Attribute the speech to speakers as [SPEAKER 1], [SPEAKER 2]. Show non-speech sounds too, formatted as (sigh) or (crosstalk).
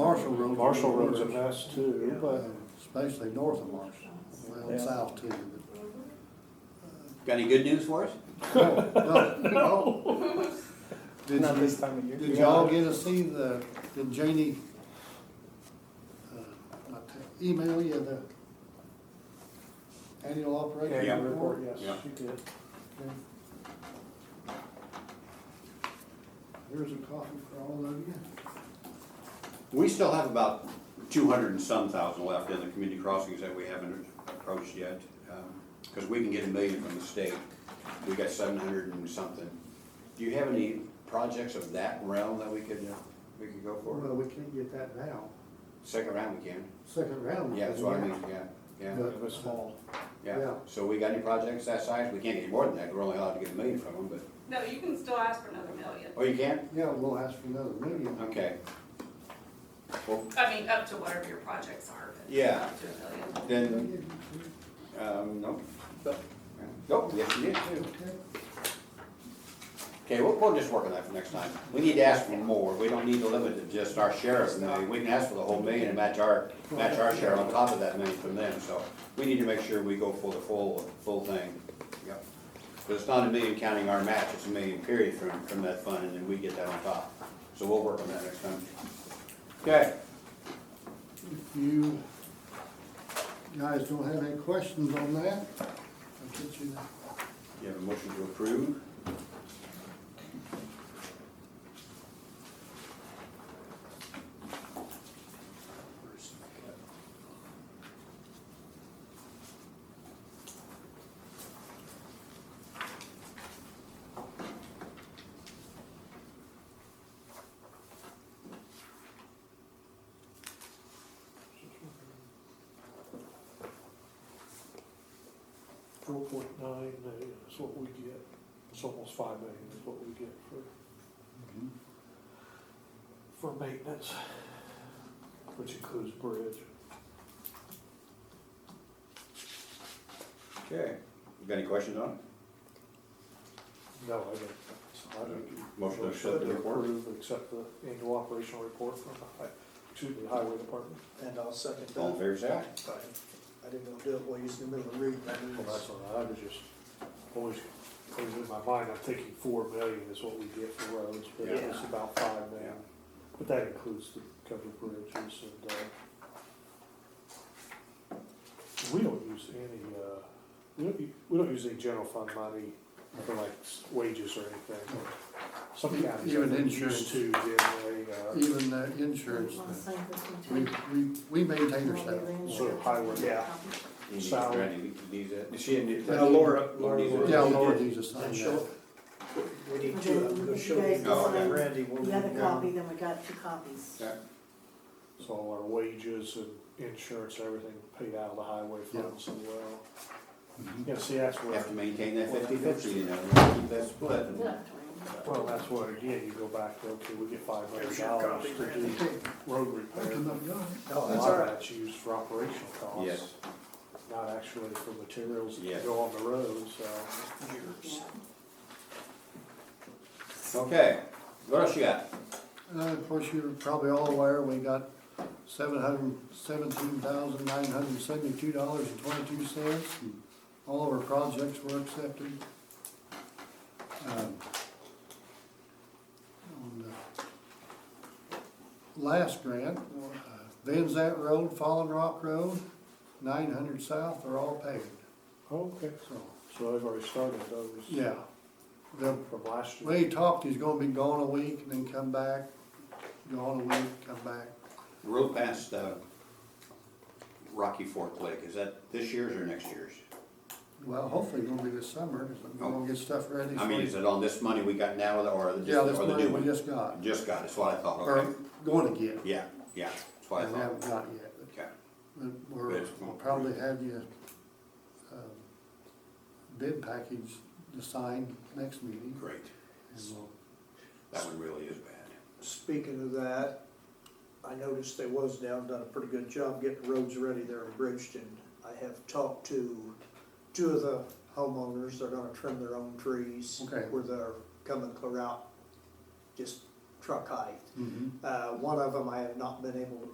[SPEAKER 1] Marshall Road.
[SPEAKER 2] Marshall Road's a mess too, but
[SPEAKER 1] Especially north of Marshall, well,
[SPEAKER 2] Yeah.
[SPEAKER 1] south too.
[SPEAKER 3] Got any good news for us?
[SPEAKER 1] but- No, no, no.
[SPEAKER 2] (laughs)
[SPEAKER 1] Did
[SPEAKER 4] Not
[SPEAKER 1] you-
[SPEAKER 4] this time of year.
[SPEAKER 1] Did y'all get to see the, did Janie uh, email you the annual
[SPEAKER 2] Yeah,
[SPEAKER 1] operating
[SPEAKER 2] your
[SPEAKER 1] report?
[SPEAKER 2] report, yes,
[SPEAKER 3] Yeah.
[SPEAKER 2] you did.
[SPEAKER 1] Here's a copy for all of you.
[SPEAKER 3] We still have about two hundred and some thousand left in the community crossings that we haven't approached yet. Because we can get a million from the state. We got seven hundred and something. Do you have any projects of that realm that we could, uh, we could go for?
[SPEAKER 1] Well, we can't get that now,
[SPEAKER 3] Second round we can.
[SPEAKER 1] second round.
[SPEAKER 3] Yeah, that's what I mean, yeah, yeah,
[SPEAKER 2] It was small.
[SPEAKER 3] yeah.
[SPEAKER 1] Yeah.
[SPEAKER 3] So we got any projects that size? We can't get any more than that. We're only allowed to get a million from them, but,
[SPEAKER 5] No, you can still ask for another million.
[SPEAKER 3] oh, you can?
[SPEAKER 1] Yeah, we'll ask for another million.
[SPEAKER 3] Okay. Well,
[SPEAKER 5] I mean, up to whatever your projects are. but
[SPEAKER 3] Yeah.
[SPEAKER 5] Up to a million.
[SPEAKER 3] then Um, no. Nope, yes, you did too. Okay, we'll, we'll just work on that for next time. We need to ask for more. We don't need to limit it to just our share of a million. We can ask for the whole million and match our, match our share on top of that million from them, so we need to make sure we go for the full, full thing. Yep. But it's not a million counting our match, it's a million period from, from that fund, and then we get that on top. So we'll work on that next time. Okay.
[SPEAKER 1] If you guys don't have any questions on that, I'll get you that.
[SPEAKER 3] You have a motion to approve?
[SPEAKER 2] Four point nine million is what we get. It's almost five million is what we get for, for maintenance, which includes bridge.
[SPEAKER 3] Okay. You got any questions on it?
[SPEAKER 2] No, I don't, I don't.
[SPEAKER 3] Motion to accept the report?
[SPEAKER 2] Approve, Accept the annual operational report from the, hi- excuse me, the highway department.
[SPEAKER 4] And I'll second
[SPEAKER 3] All in
[SPEAKER 4] that.
[SPEAKER 3] favor, say aye.
[SPEAKER 4] I didn't know do it while you was in the middle of reading. I knew
[SPEAKER 2] Well,
[SPEAKER 4] it
[SPEAKER 2] that's all
[SPEAKER 4] was-
[SPEAKER 2] right, I was just, always, always in my mind, I'm thinking four million is what we get for roads, but it's
[SPEAKER 5] Yeah.
[SPEAKER 2] about five million.
[SPEAKER 3] Yeah.
[SPEAKER 2] But that includes the covered bridges and, uh, we don't use any, uh, we don't, u- we don't use any general fund money for like s- wages or anything. Some counties
[SPEAKER 1] Even
[SPEAKER 2] are
[SPEAKER 1] insurance.
[SPEAKER 2] used to uh, generally,
[SPEAKER 1] Even the insurance,
[SPEAKER 6] Sign this one
[SPEAKER 1] we,
[SPEAKER 6] too.
[SPEAKER 1] we, we maintain ourselves.
[SPEAKER 2] uh, sort of highway.
[SPEAKER 4] Yeah.
[SPEAKER 3] You need-
[SPEAKER 2] Salary.
[SPEAKER 3] Randy, you need that. She didn't.
[SPEAKER 4] Uh, Laura,
[SPEAKER 3] Laura needs
[SPEAKER 4] Laura.
[SPEAKER 3] it.
[SPEAKER 1] Yeah, Laura needs to sign
[SPEAKER 4] And
[SPEAKER 1] that.
[SPEAKER 4] she'll, we need two, I'm gonna show you,
[SPEAKER 3] Oh, okay.
[SPEAKER 4] Randy, when we
[SPEAKER 6] The other
[SPEAKER 4] go.
[SPEAKER 6] copy, then we got two copies.
[SPEAKER 3] Yeah.
[SPEAKER 2] So all our wages and insurance, everything paid out of the highway funds as well.
[SPEAKER 1] Mm-hmm.
[SPEAKER 2] Yeah, see, that's
[SPEAKER 3] You
[SPEAKER 2] where.
[SPEAKER 3] Have to maintain that fifty-fifty, you know, keep that split.
[SPEAKER 2] Well, that's where, again, you go back, to, okay, we get five hundred
[SPEAKER 4] Here's your
[SPEAKER 2] dollars
[SPEAKER 4] copy,
[SPEAKER 2] to do
[SPEAKER 4] Randy.
[SPEAKER 2] road
[SPEAKER 1] I
[SPEAKER 2] repair.
[SPEAKER 1] can look it up.
[SPEAKER 2] A
[SPEAKER 4] No, that's
[SPEAKER 2] lot
[SPEAKER 4] all
[SPEAKER 2] of
[SPEAKER 4] right.
[SPEAKER 2] that's used for operational costs,
[SPEAKER 3] Yes,
[SPEAKER 2] not actually for materials
[SPEAKER 3] Yeah.
[SPEAKER 2] that go on the road, so.
[SPEAKER 6] Yeah.
[SPEAKER 3] okay, what else you got?
[SPEAKER 1] Uh, of course, you're probably all aware, we got seven hundred seventeen thousand nine hundred seventy-two dollars and twenty-two cents. All of our projects were accepted. Um, on the Last grant, uh, Van Zant Road, Fallen Rock Road, nine hundred south are all paved,
[SPEAKER 4] Oh,
[SPEAKER 2] Okay,
[SPEAKER 1] so,
[SPEAKER 2] so I've already started those.
[SPEAKER 1] yeah. The
[SPEAKER 2] From last year.
[SPEAKER 1] way he talked, he's gonna be gone a week and then come back, gone a week, come back.
[SPEAKER 3] Road past, uh, Rocky Fork Lake, is that this year's or next year's?
[SPEAKER 1] Well, hopefully it'll be this summer, because we're gonna get stuff ready.
[SPEAKER 3] I mean, is it on this money we got now or the,
[SPEAKER 1] Yeah, this
[SPEAKER 3] or the
[SPEAKER 1] money
[SPEAKER 3] new
[SPEAKER 1] we
[SPEAKER 3] one?
[SPEAKER 1] just got,
[SPEAKER 3] Just got, that's what I thought, okay.
[SPEAKER 1] or going to get,
[SPEAKER 3] Yeah, yeah, that's
[SPEAKER 1] we
[SPEAKER 3] what I
[SPEAKER 1] haven't
[SPEAKER 3] thought,
[SPEAKER 1] got yet, but-
[SPEAKER 3] okay.
[SPEAKER 1] but we're,
[SPEAKER 3] Good.
[SPEAKER 1] we'll probably have you, um, bid package assigned next meeting.
[SPEAKER 3] Great,
[SPEAKER 1] and we'll-
[SPEAKER 3] that one really is bad.
[SPEAKER 4] Speaking of that, I noticed they was down, done a pretty good job getting roads ready there in Bridgeton. I have talked to two of the homeowners, they're gonna trim their own trees.
[SPEAKER 1] Okay.
[SPEAKER 4] Where they're coming clear out, just truck height.
[SPEAKER 1] Mhm.
[SPEAKER 3] Mm-hmm.
[SPEAKER 4] Uh, one of them I have not been able to